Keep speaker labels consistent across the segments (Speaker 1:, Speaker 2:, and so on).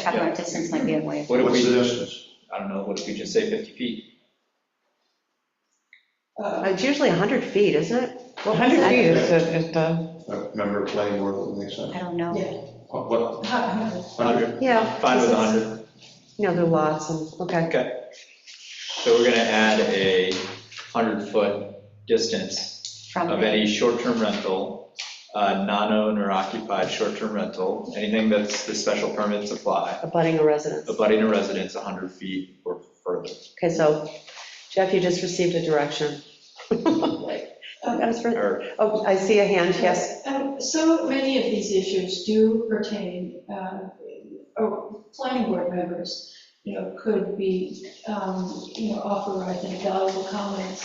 Speaker 1: talk about distance might be a way.
Speaker 2: What if
Speaker 3: What's the
Speaker 2: we,
Speaker 3: distance?
Speaker 2: I don't know, what if we just say 50 feet?
Speaker 4: Uh,
Speaker 5: It's usually 100 feet, isn't it? What was
Speaker 6: 100
Speaker 5: that?
Speaker 6: feet is the, is the,
Speaker 3: I remember playing more than they said.
Speaker 1: I don't know.
Speaker 4: Yeah.
Speaker 3: What, what, hundred?
Speaker 2: 100?
Speaker 5: Yeah,
Speaker 2: Fine with 100.
Speaker 5: you know, there are lots and, okay.
Speaker 2: So we're going to add a 100-foot distance
Speaker 1: From
Speaker 2: of
Speaker 1: the,
Speaker 2: any short-term rental, uh, non-owner occupied short-term rental, anything that's, the special permits apply,
Speaker 5: Abutting a residence.
Speaker 2: abutting a residence 100 feet or further.
Speaker 5: Okay, so Jeff, you just received a direction. That was for-
Speaker 2: Or,
Speaker 5: Oh, I see a hand, yes.
Speaker 4: Um, So many of these issues do pertain, uh, or planning board members, you know, could be, um, you know, offer, I think, valuable comments.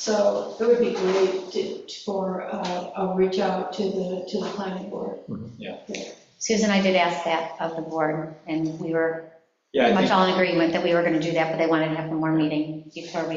Speaker 4: So it would be great to- for, uh, a reach out to the, to the planning board.
Speaker 1: Susan, I did ask that of the board, and we were
Speaker 2: yeah,
Speaker 1: pretty
Speaker 2: I
Speaker 1: much
Speaker 2: think,
Speaker 1: all in agreement that we were going to do that, but they wanted to have one more meeting before we,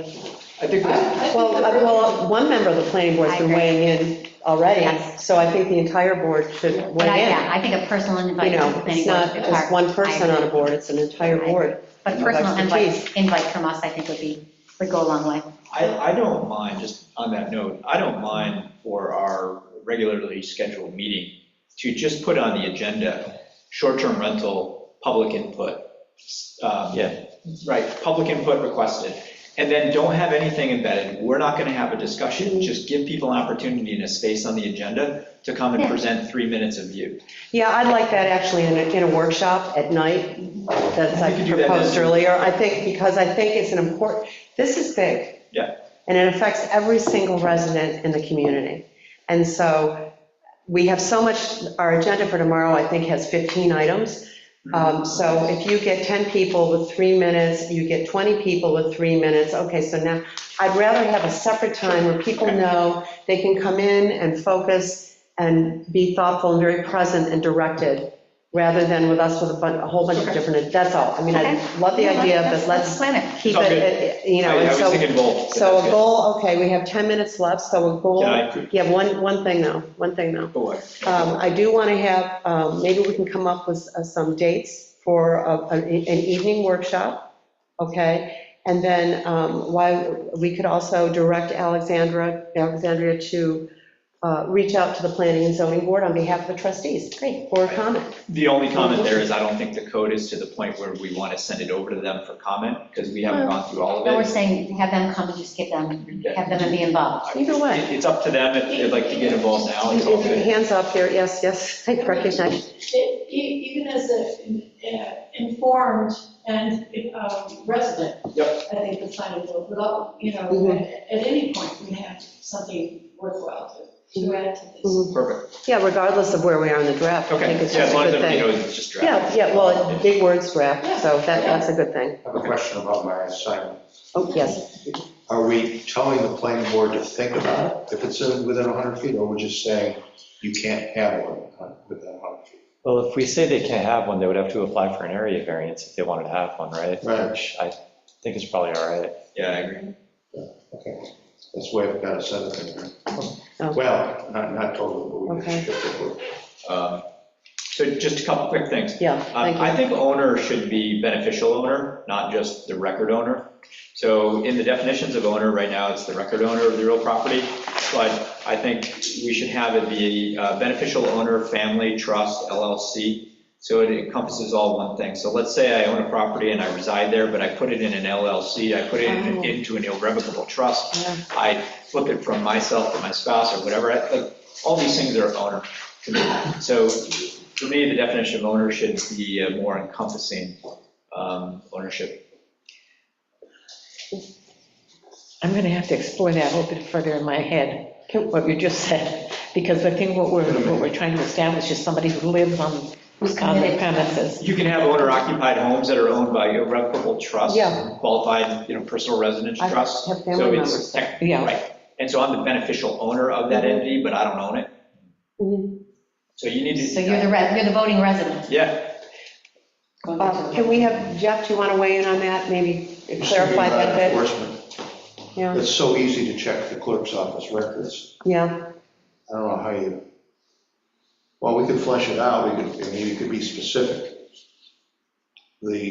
Speaker 2: I think,
Speaker 4: I- I
Speaker 2: that's-
Speaker 4: think
Speaker 5: Well,
Speaker 4: the-
Speaker 5: uh, well, one member of the planning board's
Speaker 1: I
Speaker 5: been
Speaker 1: agree.
Speaker 5: weighing in already,
Speaker 1: Yes.
Speaker 5: so I think the entire board should
Speaker 1: but I,
Speaker 5: weigh
Speaker 1: yeah,
Speaker 5: in.
Speaker 1: I think a personal invite.
Speaker 5: You
Speaker 1: from
Speaker 5: know,
Speaker 1: the planning
Speaker 5: it's
Speaker 1: board
Speaker 5: not
Speaker 1: would be
Speaker 5: just
Speaker 1: hard.
Speaker 5: one person
Speaker 1: I
Speaker 5: on a
Speaker 1: agree.
Speaker 5: board, it's an entire
Speaker 1: I
Speaker 5: board.
Speaker 1: But
Speaker 5: of
Speaker 1: personal
Speaker 5: expertise.
Speaker 1: invite, invite from us, I think would be, would go a long way.
Speaker 2: I, I don't mind, just on that note, I don't mind for our regularly scheduled meeting to just put on the agenda, short-term rental, public input. Yeah. Right, public input requested. And then don't have anything embedded. We're not going to have a discussion. Just give people an opportunity and a space on the agenda to come and
Speaker 1: Yeah.
Speaker 2: present three minutes of view.
Speaker 5: Yeah, I'd like that actually in a, in a workshop at night, that's I
Speaker 2: We could do that
Speaker 5: proposed
Speaker 2: then.
Speaker 5: earlier. I think, because I think it's an important, this is big.
Speaker 2: Yeah.
Speaker 5: And it affects every single resident in the community. And so we have so much, our agenda for tomorrow, I think, has 15 items. Um, So if you get 10 people with three minutes, you get 20 people with three minutes, okay, so now, I'd rather have a separate time where people
Speaker 2: Okay.
Speaker 5: know they can come in and focus and be thoughtful and very present and directed, rather than with us with a bunch, a whole bunch of
Speaker 2: Okay.
Speaker 5: different, that's all. I mean, I
Speaker 1: Okay.
Speaker 5: love the idea, but let's
Speaker 1: plan it.
Speaker 5: keep
Speaker 2: It's all
Speaker 5: it,
Speaker 2: good.
Speaker 5: it- it- you know,
Speaker 2: I I
Speaker 5: and
Speaker 2: was
Speaker 5: so,
Speaker 2: thinking both. but
Speaker 5: so
Speaker 2: that's
Speaker 5: a
Speaker 2: good.
Speaker 5: goal, okay, we have 10 minutes left, so a goal,
Speaker 2: Yeah, I agree.
Speaker 5: you have one, one thing though, one thing though.
Speaker 2: Go ahead.
Speaker 5: Um, I do want to have, um, maybe we can come up with uh, some dates for a- an an evening workshop, okay? And then um, why, we could also direct Alexandra, Alexandria to uh, reach out to the planning and zoning board on behalf of the trustees. Great. For a comment.
Speaker 2: The only comment there is I don't think the code is to the point where we want to send it over to them for comment because we haven't gone through all of it.
Speaker 1: But we're saying, have them come and just give them, have them and be involved.
Speaker 5: Either way.
Speaker 2: It- It's up to them if they'd like to get involved now, it's all good.
Speaker 5: Hands up there, yes, yes, I recognize.
Speaker 4: E- e- Even as an informed and um, resident. I think the planning board, would all uh, you know,
Speaker 5: Mhm.
Speaker 4: at at any point, we have something worthwhile to, to add to this.
Speaker 5: Mhm.
Speaker 2: Perfect,
Speaker 5: Yeah, regardless of where we are in the draft, I
Speaker 2: okay,
Speaker 5: think it's
Speaker 2: yeah, as
Speaker 5: just a
Speaker 2: long as
Speaker 5: good
Speaker 2: everybody
Speaker 5: thing.
Speaker 2: knows it's just
Speaker 5: Yeah,
Speaker 2: draft.
Speaker 5: yeah, well, big words draft, so that, that's a good thing.
Speaker 3: I have a question about my assignment.
Speaker 5: Oh, yes.
Speaker 3: Are we telling the planning board to think about it if it's in- within 100 feet, or we're just saying you can't have one uh, within 100 feet?
Speaker 7: Well, if we say they can't have one, they would have to apply for an area variance if they wanted to have one, right?
Speaker 3: Right.
Speaker 7: Which I think is probably all right.
Speaker 2: Yeah, I agree.
Speaker 3: Okay, that's the way I've got it set up in
Speaker 5: Oh.
Speaker 3: there. Well, not, not totally, but we
Speaker 5: Okay.
Speaker 3: can shift it. over.
Speaker 2: Um, So just a couple quick things.
Speaker 5: Yeah,
Speaker 2: Um,
Speaker 5: thank you.
Speaker 2: I think owner should be beneficial owner, not just the record owner. So in the definitions of owner, right now, it's the record owner of the real property, but I think we should have it be uh, beneficial owner, family, trust, LLC, so it encompasses all one thing. So let's say I own a property and I reside there, but I put it in an LLC, I put it in-
Speaker 5: Oh.
Speaker 2: into an irrevocable trust,
Speaker 5: Yeah.
Speaker 2: I flip it from myself to my spouse or whatever, I- like, all these things are owner to me. So for me, the definition of owner should be a more encompassing um, ownership.
Speaker 6: I'm going to have to explore that a little bit further in my head, what you just said, because I think what we're, what we're trying to establish is somebody who lives on, on the
Speaker 1: committed.
Speaker 6: premises.
Speaker 2: You can have owner occupied homes that are owned by irrevocable trusts,
Speaker 5: Yeah.
Speaker 2: qualified, you know, personal residence
Speaker 5: I
Speaker 2: trusts.
Speaker 5: have
Speaker 2: So
Speaker 5: family
Speaker 2: it's
Speaker 5: members. Mm-hmm.
Speaker 2: tech,
Speaker 6: Yeah.
Speaker 2: right. And so I'm the beneficial owner of that entity, but I don't own it.
Speaker 5: Mhm.
Speaker 2: So you need to.
Speaker 1: So you're the, re- you're the voting resident.
Speaker 2: Yeah,
Speaker 1: Going back to
Speaker 5: Uh,
Speaker 1: the-
Speaker 5: Can we have, Jeff, do you want to weigh in on that, maybe clarify that bit?
Speaker 3: Enforcement.
Speaker 5: Yeah,
Speaker 3: It's so easy to check the clerk's office records.
Speaker 5: yeah,
Speaker 3: I don't know how you, well, we could flesh it out, we could, I mean, you could be specific. the